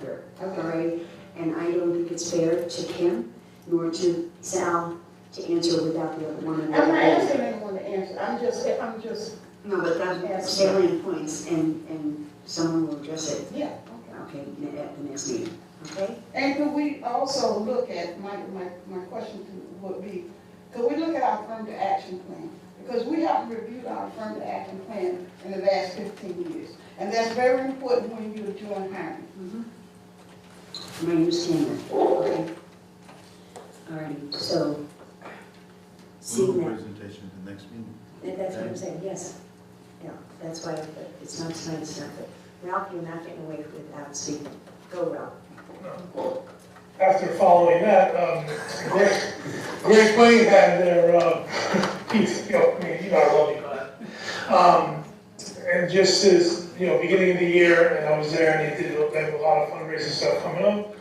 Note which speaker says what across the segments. Speaker 1: Board of RA, and I don't think it's fair to Kim nor to Sal to answer without the other one.
Speaker 2: I'm
Speaker 1: in
Speaker 2: not
Speaker 1: there.
Speaker 2: asking anyone to answer, I'm just, I'm just,
Speaker 1: No, but that's salient points, and, and someone will address it,
Speaker 2: yeah, okay.
Speaker 1: okay, n- at the next meeting, okay?
Speaker 2: And could we also look at, my, my, my question to- would be, could we look at our affirmative action plan? Because we haven't reviewed our affirmative action plan in the last fifteen years, and that's very important when you're doing hiring.
Speaker 1: My name is Tamara, okay? All right, so, seeing
Speaker 3: Move
Speaker 1: that,
Speaker 3: presentation at the next meeting.
Speaker 1: that- that's what I'm saying, yes. Yeah, that's why, I put- it's not tonight, it's not, but Ralph, you're not getting away without speaking. Go, Ralph.
Speaker 4: after following that, um, Greg, Greg Plain had their, uh, piece, you know, I mean, you know, I love you, but, um, and just as, you know, beginning of the year, and I was there, and they did, they have a lot of fundraising stuff coming up,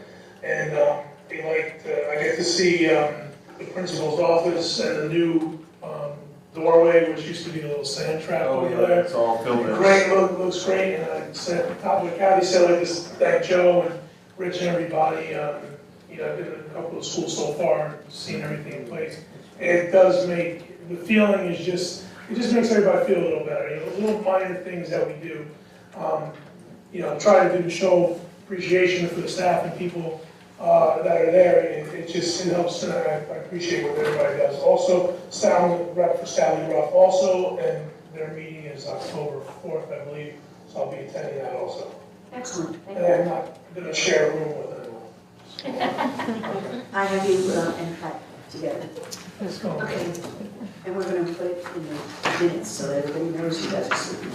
Speaker 4: and, um, they liked, uh, I get to see, um, the principal's office and the new, um, doorway, which used to be a little sand trap
Speaker 3: Oh,
Speaker 4: over
Speaker 3: yeah,
Speaker 4: there.
Speaker 3: it's all filled in.
Speaker 4: Great, look, looks great, and I said, on top of the county, said, like, this, thank Joe and Rich and everybody, um, you know, I've been in a couple of schools so far, seen everything in place. And it does make, the feeling is just, it just makes everybody feel a little better, you know, little minor things that we do. Um, you know, try to do, show appreciation for the staff and people, uh, that are there, and it, it just, it helps, and I, I appreciate what everybody does. Also, Sally, rep for Sally Ruff also, and their meeting is October fourth, I believe, so I'll be attending that also.
Speaker 1: Excellent, thank
Speaker 4: And
Speaker 1: you.
Speaker 4: I'm not gonna share a room with anyone.
Speaker 1: I have you uh, and Pat together.
Speaker 4: Let's go.
Speaker 1: Okay, and we're gonna put it in the minutes so that everybody knows you guys are sleeping.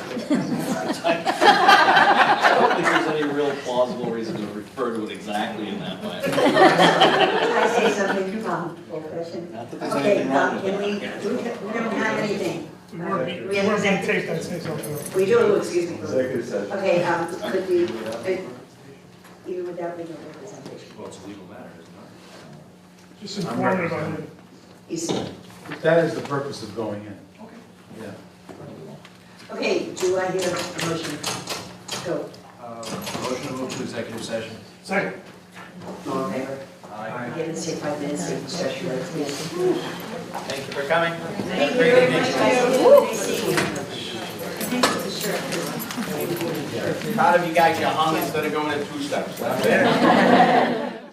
Speaker 5: I don't think there's any real plausible reason to refer to it exactly in that way.
Speaker 1: Can I say something, um, old fashioned?
Speaker 5: Not that there's
Speaker 1: Okay,
Speaker 5: anything wrong
Speaker 1: um,
Speaker 5: with
Speaker 1: can we, we
Speaker 5: that.
Speaker 1: don't we don't have anything.
Speaker 6: We weren't, we weren't being taped, I'd say something.
Speaker 1: We do, excuse me.
Speaker 3: Executive session.
Speaker 1: Okay, um, could we, uh, even without legal representation,
Speaker 5: Well, it's a legal matter, isn't it?
Speaker 4: Just inform everybody.
Speaker 1: is,
Speaker 3: That is the purpose of going in.
Speaker 5: Okay.
Speaker 3: Yeah.
Speaker 1: okay, do I hear a motion? Go,
Speaker 5: Uh, Motion to move to executive session.
Speaker 4: Second.
Speaker 1: all in favor?
Speaker 5: Aye.
Speaker 1: Give us say five minutes, take a session, let's get.
Speaker 5: Thank you for coming.
Speaker 1: Thank you very much, guys, nice seeing you. Thanks for the shirt.
Speaker 7: Proud of you guys, your hung instead of going in two steps.